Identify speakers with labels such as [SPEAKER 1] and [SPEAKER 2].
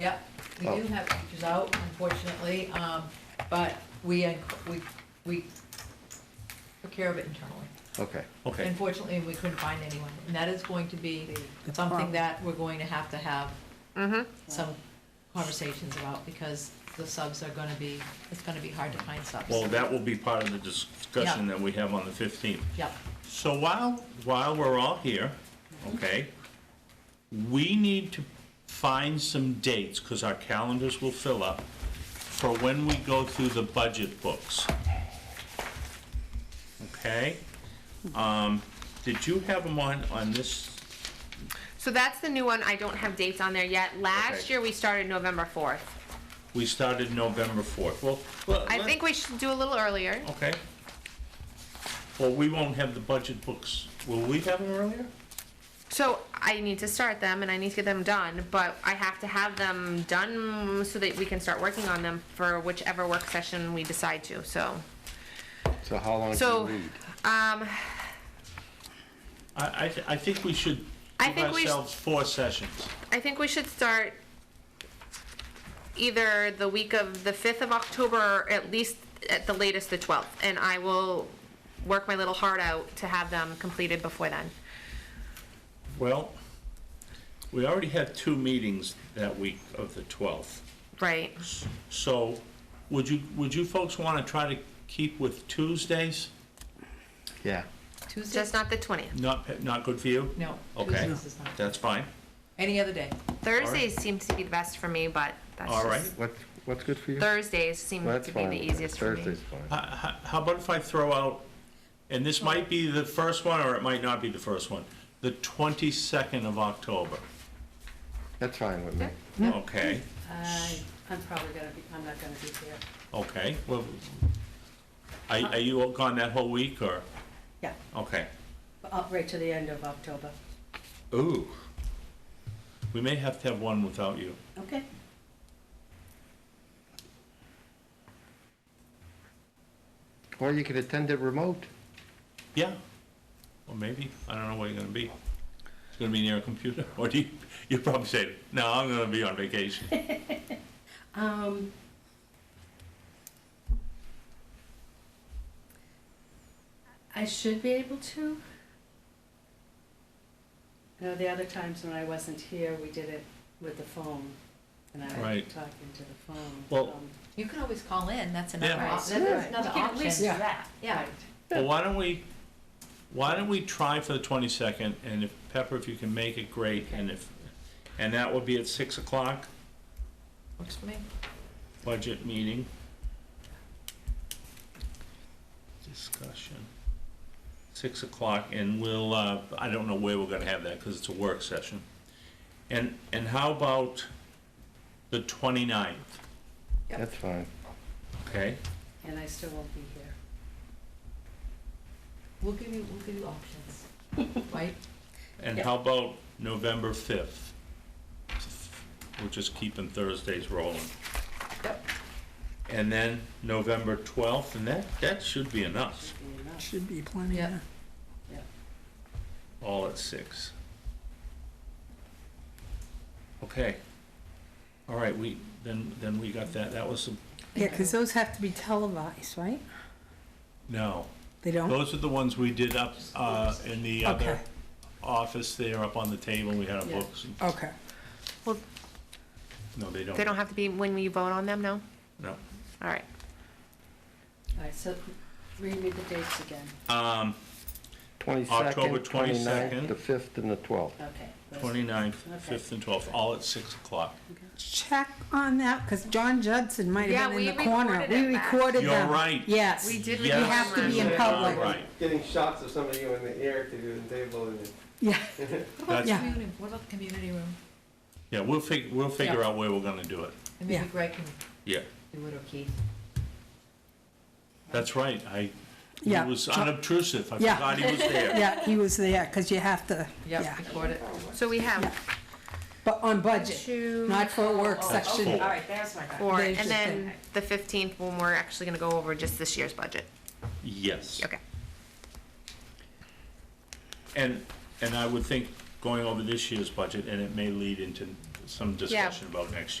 [SPEAKER 1] Yep, we
[SPEAKER 2] Oh.
[SPEAKER 1] do have teachers out unfortunately, um, but we, we, we took care of it internally.
[SPEAKER 3] Okay,
[SPEAKER 2] Okay,
[SPEAKER 1] Unfortunately, we couldn't find anyone, and that is going to be something that we're going to have to have some conversations about, because the subs are gonna be, it's gonna be hard to find subs.
[SPEAKER 2] well, that will be part of the discussion
[SPEAKER 1] Yeah.
[SPEAKER 2] that we have on the 15th.
[SPEAKER 1] Yep,
[SPEAKER 2] So while, while we're all here, okay, we need to find some dates, because our calendars will fill up, for when we go through the budget books. Okay? Um, Did you have them on, on this?
[SPEAKER 4] So that's the new one. I don't have dates on there yet. Last
[SPEAKER 2] Okay.
[SPEAKER 4] year, we started November 4th.
[SPEAKER 2] We started November 4th. Well, well,
[SPEAKER 4] I
[SPEAKER 2] let-
[SPEAKER 4] think we should do a little earlier.
[SPEAKER 2] Okay. Well, we won't have the budget books. Will we have them earlier?
[SPEAKER 4] So I need to start them and I need to get them done, but I have to have them done so that we can start working on them for whichever work session we decide to, so.
[SPEAKER 3] so how long
[SPEAKER 4] So,
[SPEAKER 3] do you need?
[SPEAKER 4] Um,
[SPEAKER 2] I, I, th- I think we should
[SPEAKER 4] I
[SPEAKER 2] give
[SPEAKER 4] think we sh-
[SPEAKER 2] ourselves four sessions.
[SPEAKER 4] I think we should start either the week of the 5th of October or at least at the latest the 12th. And I will work my little heart out to have them completed before then.
[SPEAKER 2] Well, we already had two meetings that week of the 12th.
[SPEAKER 4] Right.
[SPEAKER 2] So would you, would you folks want to try to keep with Tuesdays?
[SPEAKER 3] Yeah,
[SPEAKER 4] Just
[SPEAKER 1] Tuesdays,
[SPEAKER 4] not the 20th.
[SPEAKER 2] Not, not good for you?
[SPEAKER 1] no,
[SPEAKER 2] Okay.
[SPEAKER 1] Tuesdays is not,
[SPEAKER 2] That's fine.
[SPEAKER 1] any other day.
[SPEAKER 4] Thursdays seems to be the best for me, but that's
[SPEAKER 2] All
[SPEAKER 4] just-
[SPEAKER 2] right.
[SPEAKER 3] what's, what's good for you?
[SPEAKER 4] Thursdays seem
[SPEAKER 3] That's
[SPEAKER 4] to be
[SPEAKER 3] fine.
[SPEAKER 4] the easiest for me.
[SPEAKER 3] Thursday's fine.
[SPEAKER 2] How- How Uh, how about if I throw out, and this might be the first one or it might not be the first one, the 22nd of October?
[SPEAKER 3] That's fine with me.
[SPEAKER 2] Okay,
[SPEAKER 5] I, I'm probably gonna be, I'm not gonna be here.
[SPEAKER 2] okay. Well, Are are you gone that whole week or?
[SPEAKER 5] Yeah.
[SPEAKER 2] Okay.
[SPEAKER 5] Up uh, right to the end of October.
[SPEAKER 2] Ooh. We may have to have one without you.
[SPEAKER 5] Okay.
[SPEAKER 3] Or you could attend it remote.
[SPEAKER 2] Yeah. Or maybe, I don't know where you're gonna be. It's gonna be near a computer, or do you, you probably say, no, I'm gonna be on vacation.
[SPEAKER 5] Um. I should be able to. I know the other times when I wasn't here, we did it with the phone, and I was
[SPEAKER 2] Right.
[SPEAKER 5] talking to the phone.
[SPEAKER 2] Well,
[SPEAKER 5] um,
[SPEAKER 1] You can always call in, that's another,
[SPEAKER 2] Yeah.
[SPEAKER 1] op- that's
[SPEAKER 5] Right.
[SPEAKER 1] another
[SPEAKER 5] We can at least do
[SPEAKER 1] option,
[SPEAKER 5] that.
[SPEAKER 1] yeah.
[SPEAKER 2] Well, why don't we, why don't we try for the twenty-second, and if, Pepper, if you can make it, great, and if, and that would be at six o'clock,
[SPEAKER 1] Works for me.
[SPEAKER 2] budget meeting. Discussion. Six o'clock, and we'll, uh, I don't know where we're gonna have that, because it's a work session. And, and how about the 29th?
[SPEAKER 1] Yep.
[SPEAKER 3] That's fine.
[SPEAKER 2] okay?
[SPEAKER 5] And I still won't be here.
[SPEAKER 1] We'll give you, we'll give you options, right?
[SPEAKER 2] And
[SPEAKER 1] Yeah.
[SPEAKER 2] how about November fifth? We're just keeping Thursdays rolling.
[SPEAKER 1] Yep.
[SPEAKER 2] And then November 12th, and that, that should be enough,
[SPEAKER 5] Should be enough.
[SPEAKER 6] Should be plenty,
[SPEAKER 1] Yeah.
[SPEAKER 6] yeah.
[SPEAKER 2] all at six. Okay. All right, we, then, then we got that, that was, the-
[SPEAKER 6] Yeah, because those have to be televised, right?
[SPEAKER 2] no.
[SPEAKER 6] They don't?
[SPEAKER 2] Those are the ones we did up uh, in the other
[SPEAKER 6] Okay.
[SPEAKER 2] office there, up on the table, we had our
[SPEAKER 5] Yeah.
[SPEAKER 2] books. and-
[SPEAKER 6] Okay.
[SPEAKER 2] No, they don't.
[SPEAKER 4] They don't have to be when we vote on them, no?
[SPEAKER 2] No.
[SPEAKER 4] All right.
[SPEAKER 5] All right, so read me the dates again.
[SPEAKER 2] Um, October
[SPEAKER 3] Twenty-second,
[SPEAKER 2] 22nd.
[SPEAKER 3] twenty-ninth, the fifth and the twelfth.
[SPEAKER 5] Okay. let's-
[SPEAKER 2] 29th,
[SPEAKER 5] Okay.
[SPEAKER 2] 5th, and 12th, all at 6 o'clock.
[SPEAKER 6] Check on that, because John Judson might
[SPEAKER 4] Yeah,
[SPEAKER 6] have been in
[SPEAKER 4] we
[SPEAKER 6] the corner.
[SPEAKER 4] recorded
[SPEAKER 6] We
[SPEAKER 4] it back.
[SPEAKER 6] recorded
[SPEAKER 2] You're
[SPEAKER 6] them.
[SPEAKER 2] right.
[SPEAKER 6] Yes.
[SPEAKER 4] We
[SPEAKER 2] Yes.
[SPEAKER 4] did review
[SPEAKER 6] have to
[SPEAKER 4] them
[SPEAKER 6] be in
[SPEAKER 4] last
[SPEAKER 6] public.
[SPEAKER 2] All right,
[SPEAKER 7] Getting shots of somebody in the air to do the table and
[SPEAKER 6] Yeah,
[SPEAKER 1] What about the
[SPEAKER 6] Yeah.
[SPEAKER 1] community, what about the community room?
[SPEAKER 2] yeah, we'll fig, we'll figure
[SPEAKER 1] Yeah.
[SPEAKER 2] out where we're gonna do it.
[SPEAKER 1] And maybe
[SPEAKER 6] Yeah.
[SPEAKER 1] Greg can
[SPEAKER 2] Yeah.
[SPEAKER 1] do it or Keith.
[SPEAKER 2] That's right, I, he
[SPEAKER 6] Yeah.
[SPEAKER 2] was unobtrusive, I
[SPEAKER 6] Yeah.
[SPEAKER 2] forgot he was there.
[SPEAKER 6] yeah, he was there, because you have to, yeah.
[SPEAKER 1] Yep, record it.
[SPEAKER 4] So we have
[SPEAKER 6] But on budget,
[SPEAKER 4] two,
[SPEAKER 6] not for a work
[SPEAKER 5] Oh,
[SPEAKER 6] section.
[SPEAKER 5] okay, All right, there's my.
[SPEAKER 4] four,
[SPEAKER 6] There's
[SPEAKER 4] and
[SPEAKER 6] just
[SPEAKER 4] then the 15th when we're actually going to go over just this year's budget.
[SPEAKER 2] Yes,
[SPEAKER 4] Okay.
[SPEAKER 2] and, and I would think going over this year's budget, and it may lead into some discussion about next year.